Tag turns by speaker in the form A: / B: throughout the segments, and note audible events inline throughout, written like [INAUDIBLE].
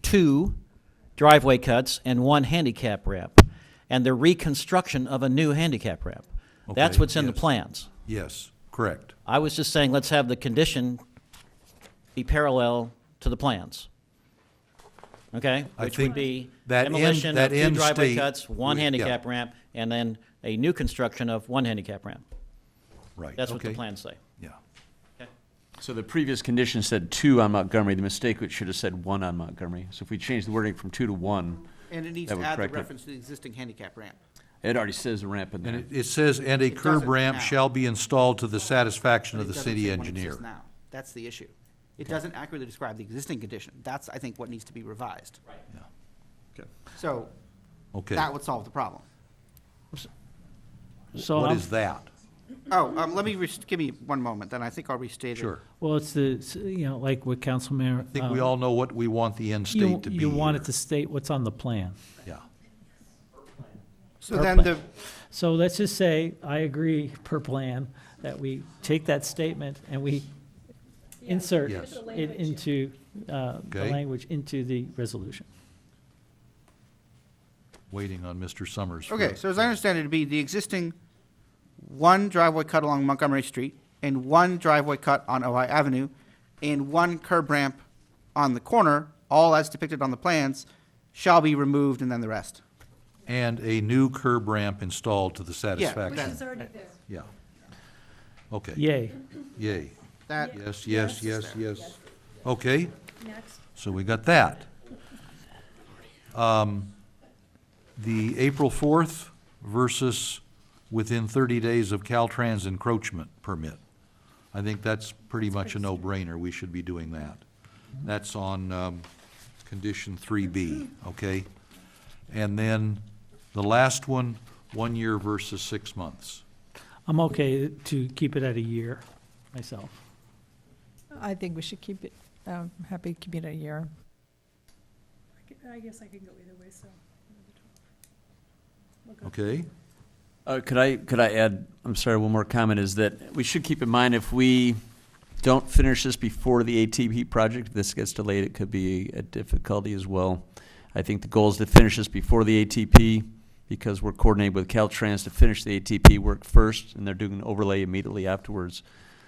A: two driveway cuts and one handicap ramp, and the reconstruction of a new handicap ramp. That's
B: Okay,
A: what's in the
B: yes.
A: plans.
B: Yes, correct.
A: I was just saying, let's have the condition be parallel to the plans. Okay?
B: I
A: Which would
B: think
A: be
B: that end-
A: demolition of
B: that
A: two
B: end
A: driveway
B: state
A: cuts, one
B: would- yeah.
A: handicap ramp, and then a new construction of one handicap ramp.
B: Right.
A: That's what the
B: okay.
A: plans say.
B: Yeah.
C: So the previous condition said two on Montgomery, the mistake which should have said one on Montgomery. So if we change the wording from two to one,
D: And it needs
C: That
D: to
C: would
D: add the
C: correct it.
D: reference to the existing handicap ramp.
C: it already says ramp in
B: And it,
C: there.
B: it says, and a curb
D: doesn't
B: ramp
D: now.
B: shall be installed to the satisfaction of
D: It
B: the
D: doesn't
B: city
D: say when it exists
B: engineer.
D: now. That's the issue. It doesn't accurately describe the existing condition. That's, I think, what needs to be revised. Right. So
B: Okay.
D: that would solve the problem.
E: So,
B: What
E: I'm-
B: is that?
D: Oh, um, let me, rest- give me one moment, then I think I'll restate it.
B: Sure.
E: well, it's the, s- you know, like with Council Mayor.
B: I think
D: Um,
B: we all know what we want the end
E: You,
B: state to be.
E: you want it
B: here.
E: to state what's on the plan.
B: Yeah.
D: So then the,
E: So let's just say, I agree per plan, that we take that statement and we insert
B: Yes.
E: it into, uh, the
B: Okay.
E: language into the resolution.
B: Waiting on Mr. Summers. for-
D: okay, so as I understand it, it'd be the existing one driveway cut along Montgomery Street and one driveway cut on Ojai Avenue and one curb ramp on the corner, all as depicted on the plans, shall be removed and then the rest.
B: And a new curb ramp installed to the
F: Which
B: satisfaction.
F: is already there.
B: Yeah. Okay.
E: Yay.
B: Yay.
D: That,
B: Yes, yes,
D: Yes.
B: yes, yes. Okay.
F: Next.
B: So we got that. Um, The April 4th versus within 30 days of Caltrans encroachment permit. I think that's pretty much a no-brainer. We should be doing that. That's on um, condition 3B, okay? And then the last one, one year versus six months.
E: I'm okay to keep it at a year myself.
G: I think we should keep it, um, happy to keep it a year.
F: I gu- I guess I can go either way, so. We'll go.
B: Okay?
C: Uh, could I, could I add, I'm sorry, one more comment is that we should keep in mind if we don't finish this before the ATP project, if this gets delayed, it could be a difficulty as well. I think the goal is to finish this before the ATP because we're coordinating with Caltrans to finish the ATP work first and they're doing an overlay immediately afterwards.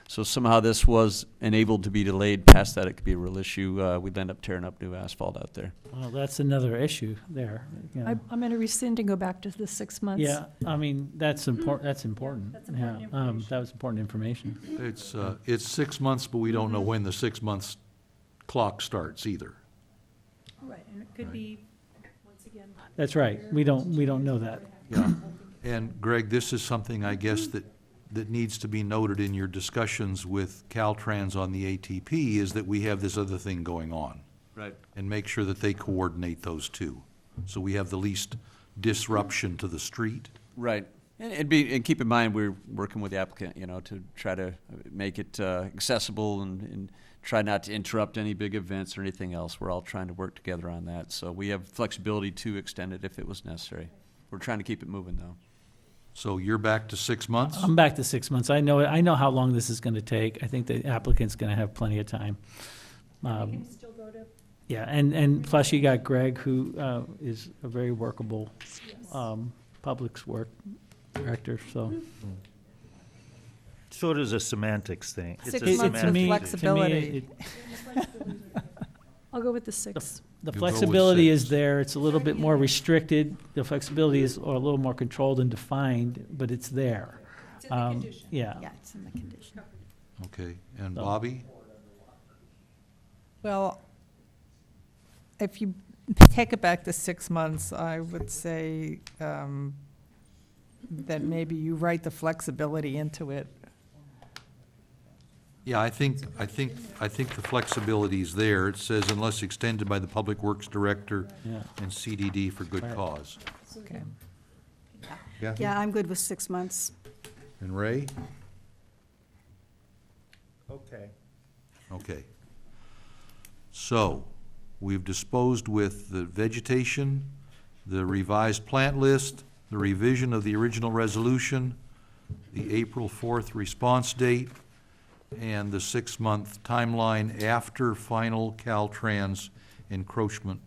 C: So somehow this was enabled to be delayed past that, it could be a real issue. Uh, we'd end up tearing up new asphalt out there.
E: Well, that's another issue there. you know.
F: I- I'm going to rescind and go back to the six months.
E: Yeah, I mean, that's important, that's important.
F: that's important
E: Yeah, um,
F: information.
E: That was important information.
B: It's, uh, it's six months, but we don't know when the six months clock starts either.
F: Right, and it could be, once again.
E: That's right. We don't, we don't know that.
B: Yeah, [COUGHS] and Greg, this is something, I guess, that, that needs to be noted in your discussions with Caltrans on the ATP, is that we have this other thing going on,
C: Right.
B: and make sure that they coordinate those two, so we have the least disruption to the street.
C: Right. And it'd be, and keep in mind, we're working with the applicant, you know, to try to make it uh, accessible and, and try not to interrupt any big events or anything else. We're all trying to work together on that. So we have flexibility to extend it if it was necessary. We're trying to keep it moving though.
B: So you're back to six months?
E: I'm back to six months. I know, I know how long this is going to take. I think the applicant's going to have plenty of time.
F: We
E: Um,
F: can still go to,
E: Yeah, and, and plus you got Greg, who uh, is a very workable um, Public Work Director, so.
H: Sort of a semantics thing. It's a
G: Six
E: It- it-
G: months
E: to
G: with
H: semantic
E: me- to me,
G: flexibility.
E: it-
F: I'll go with the six.
E: The
B: You go with
E: flexibility is
B: six.
E: there, it's a little bit more restricted, the flexibility is a little more controlled and defined, but it's there.
F: It's
E: Um, Yeah.
F: Yeah, it's in the condition.
B: Okay, and Bobby?
G: Well, if you take it back to six months, I would say um, that maybe you write the flexibility into it.
B: Yeah, I think, I think, I think the flexibility's there. It says unless extended by the Public Works Director
E: Yeah.
B: and CDD for good
E: Right.
B: cause.
G: Okay.
B: Kathy?
I: Yeah, I'm good with six months.
B: And Ray?
H: Okay.
B: Okay. So, we've disposed with the vegetation, the revised plant list, the revision of the original resolution, the April fourth response date, and the six-month timeline after final Caltrans encroachment